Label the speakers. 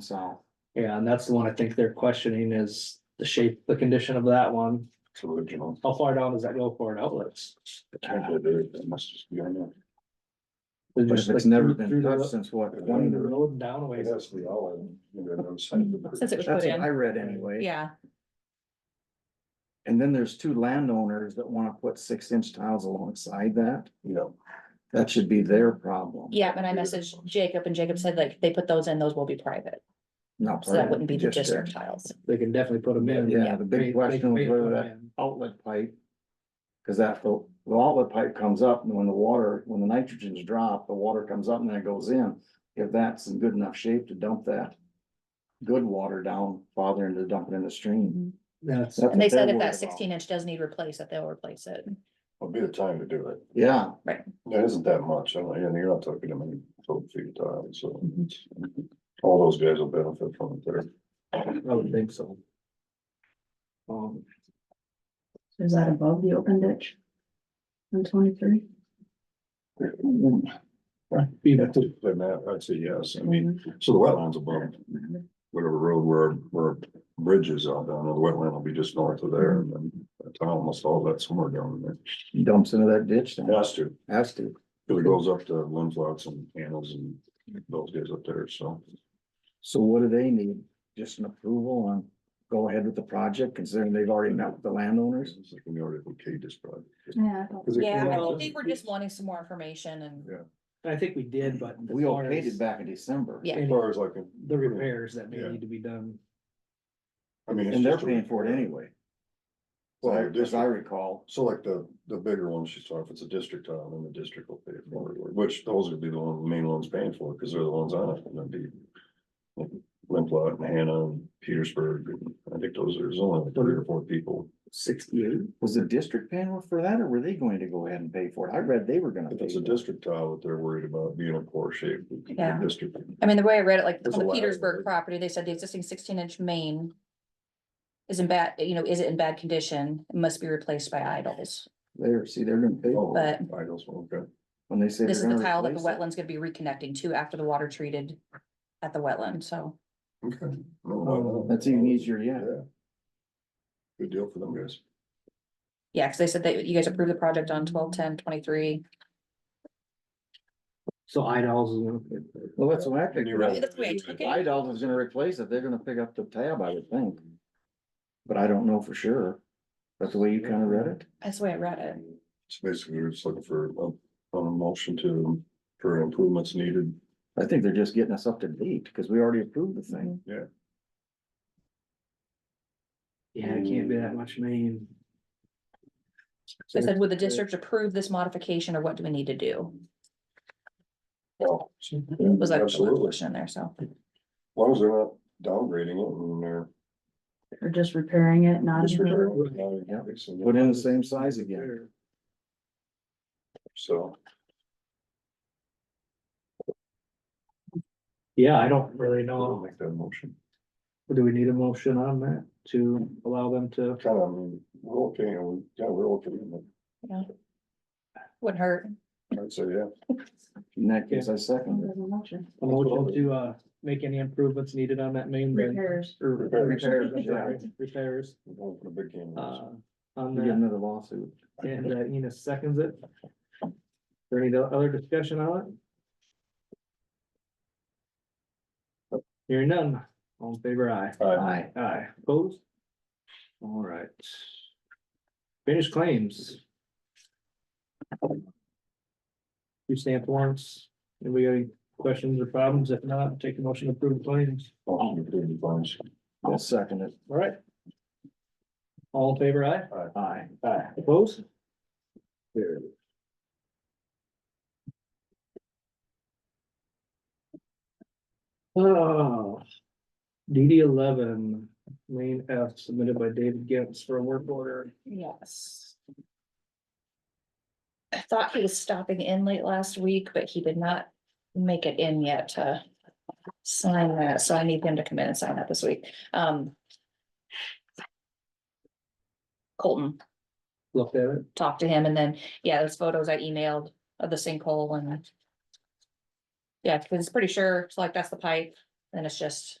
Speaker 1: south.
Speaker 2: Yeah, and that's the one I think they're questioning is the shape, the condition of that one.
Speaker 1: It's original.
Speaker 2: How far down does that go for an outlets?
Speaker 1: Potentially, there- it must just be on there.
Speaker 2: Is it
Speaker 1: But
Speaker 2: just
Speaker 1: if it's
Speaker 2: like
Speaker 1: never
Speaker 2: through-
Speaker 1: been
Speaker 2: through the-
Speaker 1: touched since what?
Speaker 2: Down the road and down a ways.
Speaker 1: the all. That's
Speaker 3: Since it was
Speaker 1: what
Speaker 3: put in,
Speaker 1: I read anyway.
Speaker 3: yeah,
Speaker 1: And then there's two landowners that wanna put six inch tiles alongside that. Yeah. That should be their problem.
Speaker 3: yeah, and I messaged Jacob and Jacob said like, they put those in, those will be private,
Speaker 1: Not.
Speaker 3: so that
Speaker 1: private,
Speaker 3: wouldn't be the
Speaker 1: just their-
Speaker 3: district tiles.
Speaker 2: They can definitely put them in.
Speaker 1: Yeah, the
Speaker 2: They- they-
Speaker 1: big question
Speaker 2: they
Speaker 1: was whether
Speaker 2: put 'em
Speaker 1: that
Speaker 2: in.
Speaker 1: outlet pipe. Cause that, the the outlet pipe comes up and when the water, when the nitrogen's dropped, the water comes up and then it goes in. If that's in good enough shape to dump that good water down, farther into dumping in the stream.
Speaker 2: That's,
Speaker 1: That's
Speaker 3: Mm-hmm. And they
Speaker 1: what they're
Speaker 3: said if
Speaker 1: worried
Speaker 3: that
Speaker 1: about.
Speaker 3: sixteen inch does need replaced, that they'll replace it.
Speaker 4: Would be the time to do it.
Speaker 1: Yeah,
Speaker 4: It isn't that much, I mean, and you're not talking to many folks at a time, so. All those guys will benefit from it there.
Speaker 2: I would think so. Um,
Speaker 5: Is that above the open ditch? On twenty-three?
Speaker 2: be
Speaker 4: Yeah,
Speaker 2: the-
Speaker 4: to- then that- I'd say yes, I mean, so the wetlands above whatever road where, where bridge is out down, the wetland will be just north of there and then. the town almost all that somewhere down there.
Speaker 1: dumps into that ditch, then.
Speaker 4: It Has to,
Speaker 1: has to.
Speaker 4: because it goes up to Lindflox and Annals and those guys up there, so.
Speaker 1: So what do they need? Just an approval on, go ahead with the project, considering they've already met with the landowners?
Speaker 4: It's like we already okayed this project.
Speaker 5: Yeah. I thought-
Speaker 4: 'Cause it-
Speaker 3: Yeah, I
Speaker 2: Well-
Speaker 3: think we're just wanting some more information and,
Speaker 2: I think we did, but. as
Speaker 1: We
Speaker 2: far
Speaker 1: okayed
Speaker 2: as
Speaker 1: it back in December.
Speaker 3: Yeah.
Speaker 4: As
Speaker 2: any-
Speaker 4: far as like,
Speaker 2: The repairs that may
Speaker 4: Yeah.
Speaker 2: need to be done.
Speaker 4: I mean. it's
Speaker 1: And they're
Speaker 4: just a-
Speaker 1: paying for it anyway.
Speaker 4: Well,
Speaker 1: Well, as I
Speaker 4: district-
Speaker 1: recall,
Speaker 4: so like the, the bigger ones she's talking, if it's a district tile, then the district will pay for it, which those would be the one, the main ones paying for it, because they're the ones on it, and that'd be. like Limplot and Hannah and Petersburg, and I think those, there's only like three or four people,
Speaker 2: Sixty-eight.
Speaker 1: was the district paying for that or were they going to go ahead and pay for it? I read they were gonna
Speaker 4: if
Speaker 1: pay.
Speaker 4: it's a
Speaker 1: for it.
Speaker 4: district tile that they're worried about being in poor shape. the
Speaker 3: Yeah.
Speaker 4: District,
Speaker 3: I mean, the way I read it, like
Speaker 4: There's
Speaker 3: on
Speaker 4: a
Speaker 3: the
Speaker 4: lot of
Speaker 3: Petersburg
Speaker 4: it.
Speaker 3: property, they said the existing sixteen inch main. Is in bad, you know, is it in bad condition, It must be replaced by idols,
Speaker 1: There, see, they're gonna pay
Speaker 4: oh,
Speaker 3: But-
Speaker 4: idols, okay,
Speaker 1: when they say.
Speaker 3: this is
Speaker 1: they're
Speaker 3: the
Speaker 1: gonna
Speaker 3: tile that the
Speaker 1: replace it.
Speaker 3: wetland's gonna be reconnecting to after the water treated. At the wetland, so,
Speaker 4: okay. No, no, no.
Speaker 1: Um, That's even easier, yeah.
Speaker 4: Yeah. Good deal for them guys.
Speaker 3: yeah, cause they said that you guys approved the project on twelve, ten, twenty-three.
Speaker 2: So Idols is one.
Speaker 1: Well, that's what I figured.
Speaker 4: Right.
Speaker 3: That's the way I took it,
Speaker 1: Idol is gonna replace it. They're gonna pick up the tab, I would think. But I don't know for sure. That's the way you kinda read it?
Speaker 3: that's the way I read it.
Speaker 4: So basically, we're just looking for a, a motion to, for improvements needed.
Speaker 1: I think they're just getting us up to date because we already approved the thing.
Speaker 2: Yeah, it can't be that much main.
Speaker 3: They said, would the district approve this modification or what do we need to do? Was like a
Speaker 4: Absolutely, as
Speaker 3: question in there, so.
Speaker 4: long as they're not downgrading it and they're.
Speaker 5: Or just repairing it, not.
Speaker 4: disregarding
Speaker 1: Yeah.
Speaker 4: it, so-
Speaker 1: Put in the same size again.
Speaker 4: So,
Speaker 2: Yeah, I don't really
Speaker 1: Oh.
Speaker 4: I'll
Speaker 2: know.
Speaker 4: make that motion.
Speaker 2: Do we need a motion on that to allow them to?
Speaker 4: Kind of, I mean, we're okay, and we, yeah, we're okay, and
Speaker 3: Wouldn't hurt.
Speaker 4: I'd say, yeah.
Speaker 1: In that case, I second it.
Speaker 2: A motion to uh make any improvements needed on that main. bed?
Speaker 5: Repairs.
Speaker 2: Or repairs,
Speaker 4: Repairs,
Speaker 2: I'm
Speaker 1: yeah.
Speaker 2: sorry, repairs,
Speaker 4: We're going for the big game.
Speaker 2: uh, on
Speaker 1: We get
Speaker 2: that,
Speaker 1: another lawsuit.
Speaker 2: and uh, Enos seconds it. Is there any other discussion on it? Hearing none, all in favor, aye.
Speaker 4: Aye.
Speaker 1: Aye.
Speaker 2: Aye, opposed? All right. Finished claims. Two stamp warrants, anybody got any questions or problems? If not, take a motion to approve the claims.
Speaker 4: Motion to approve the bonds.
Speaker 1: I'll second it.
Speaker 2: All right. All in favor, aye?
Speaker 1: Aye.
Speaker 2: Aye. Opposed? Carried. Oh. DD eleven, lane F submitted by David Gibbs for a work order.
Speaker 3: Yes. I thought he was stopping in late last week, but he did not make it in yet to sign that, so I need him to come in and sign that this week. Um. Colton
Speaker 2: Looked at it.
Speaker 3: talked to him and then, yeah, those photos I emailed of the sinkhole and. Yeah, because it's pretty sure, it's like that's the pipe, and it's just